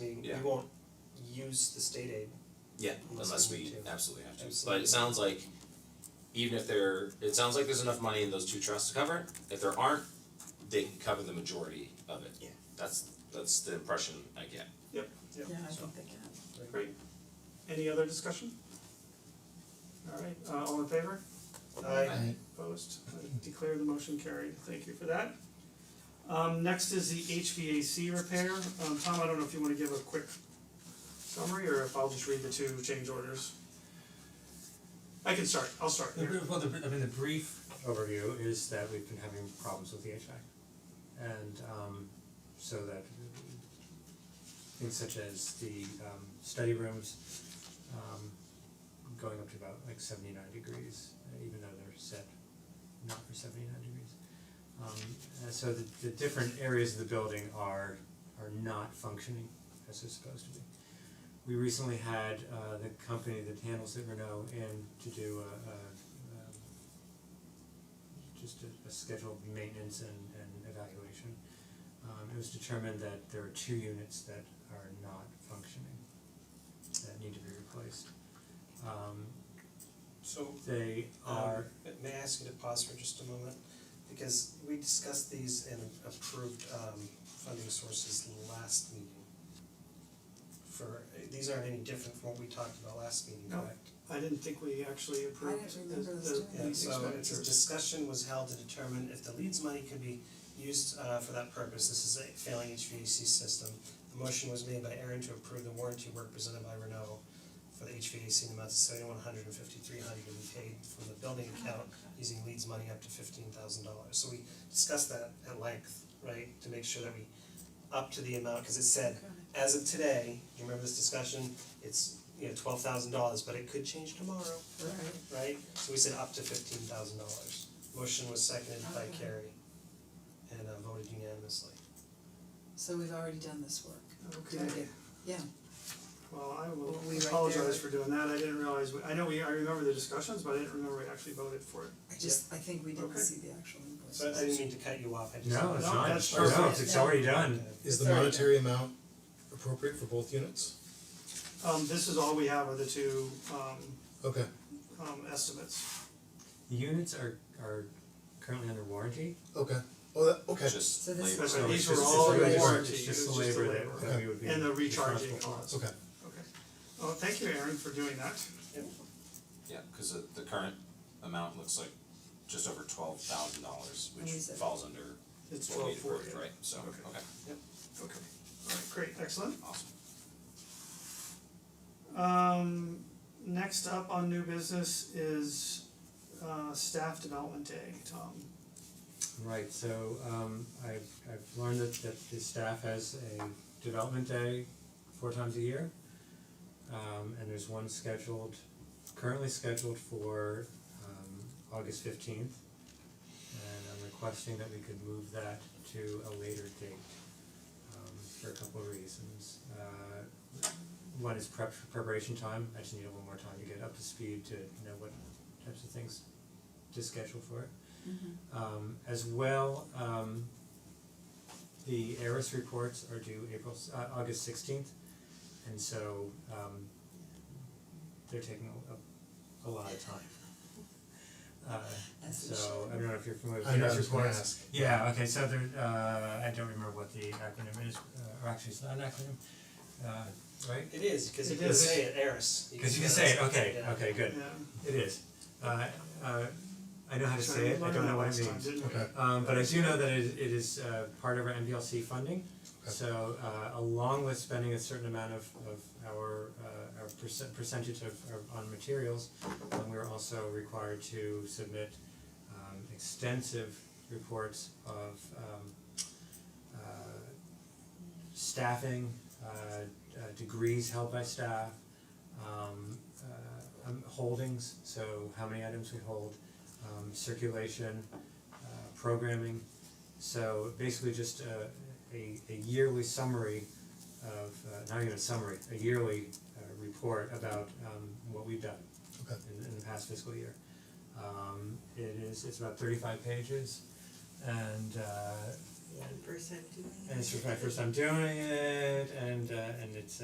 we won't use the state aid. Yeah, Unless unless we we need to. absolutely have to, but Absolutely. it sounds like even if there, it sounds like there's enough money in those two trusts to cover it, if there aren't, they can cover the majority of it. Yeah. That's that's the impression I get. Yeah, I So- think they can. Great. Any other discussion? Alright, uh all in favor? I Opposed? I declare the motion carried. Thank you for that. Um next is the HVAC repair. Um Tom, I don't know if you wanna give a quick summary or if I'll just read the two change orders. I can start, I'll start The here. br- well, the, br- I mean, the brief overview is that we've been having problems with the HVAC. And um so that things such as the um study rooms um going up to about like seventy nine degrees, uh, even though they're set not for seventy nine degrees. Um and so the the different areas of the building are are not functioning as they're supposed to be. We recently had uh the company that handles it, Renault, in to do a a um just a a scheduled maintenance and and evaluation. Um it was determined that there are two units that are not functioning that need to be replaced. Um So they um are, may I ask you to pause for just a moment? Because we discussed these and approved um funding sources last meeting. For, these aren't any different from what we talked about last meeting, No. correct? I didn't think we actually approved the remember this the doing Yeah, these so it's a expenditures. discussion was held to determine if the leads money could be used uh for that purpose, this is a failing HVAC system. The motion was made by Aaron to approve the warranty work presented by Renault for the HVAC in the amount of seventy one hundred and fifty three hundred to be paid from the building account using leads money up to fifteen thousand dollars, so we discussed that at length, right, to make sure that we up to the amount, cause it said, as of today, you remember this discussion, it's, you know, twelve thousand dollars, but it could change tomorrow Right. right? So we said up to fifteen thousand dollars. Motion was seconded by Okay. Carrie and uh, voted unanimously. So we've already done this work. Okay. Did I get- Yeah, Well, I Were will we right there? apologize for doing that, I didn't realize, we- I know we, I remember the discussions, but I didn't remember we actually voted for it. I just, I think we didn't Okay. see the actual invoice. So I didn't mean to cut you off, I just. no, it's No, not, that's no, it's- perfect. it's already done. Okay. Is the Sorry. monetary amount appropriate for both units? Um this is all we have are the two um Okay, um estimates. The units are are currently under warranty, okay, oh, that, okay, Just So this labor. is- so these it's were just, it's all the labor, warranty, it's just it the was just the labor labor. that that we would be And the recharging responsible for. costs. okay. Okay. Well, thank you, Aaron, for doing that. Yeah, cause the the current amount looks like just over twelve thousand dollars, which And we said- falls under what It's we twelve had forty. approved, right? So, okay, Okay. Okay. Alright, great, excellent. awesome. Um next up on new business is uh staff development day, Tom. Right, so um I've I've learned that that the staff has a development day four times a year. Um and there's one scheduled, currently scheduled for um August fifteenth. And I'm requesting that we could move that to a later date um for a couple of reasons. Uh one is prep preparation time, I just need a little more time to get up to speed to know what types of things to schedule for it. Mhm. Um as well, um the ARIS reports are due April s- uh August sixteenth. And so um they're taking a a lot of time. Uh As it so should. I don't know if you're familiar with I the know, I ARIS was gonna reports. ask. Yeah, okay, so there uh I don't remember what the acronym is, uh, or actually it's not an acronym, uh right? It is, cause you It can is. say it, Eris. Cause you can say, it, okay, Yeah. okay, good, Yeah. it is. Uh uh I know how to So say we it, I learned don't that know what it last means. time, didn't we? Okay. Um but I do know that it is it is uh part of our MPLC funding. Okay. So uh along with spending a certain amount of of our uh our percent percentage of of on materials, um we're also required to submit um extensive reports of um uh staffing, uh uh degrees held by staff, um uh um, holdings, so how many items we hold, um circulation, uh programming. So basically just a a a yearly summary of uh not even a summary, a yearly uh report about um what we've done Okay. in in the past fiscal year. Um it is, it's about thirty five pages and uh First time doing it. and it's my first time doing it and uh and it's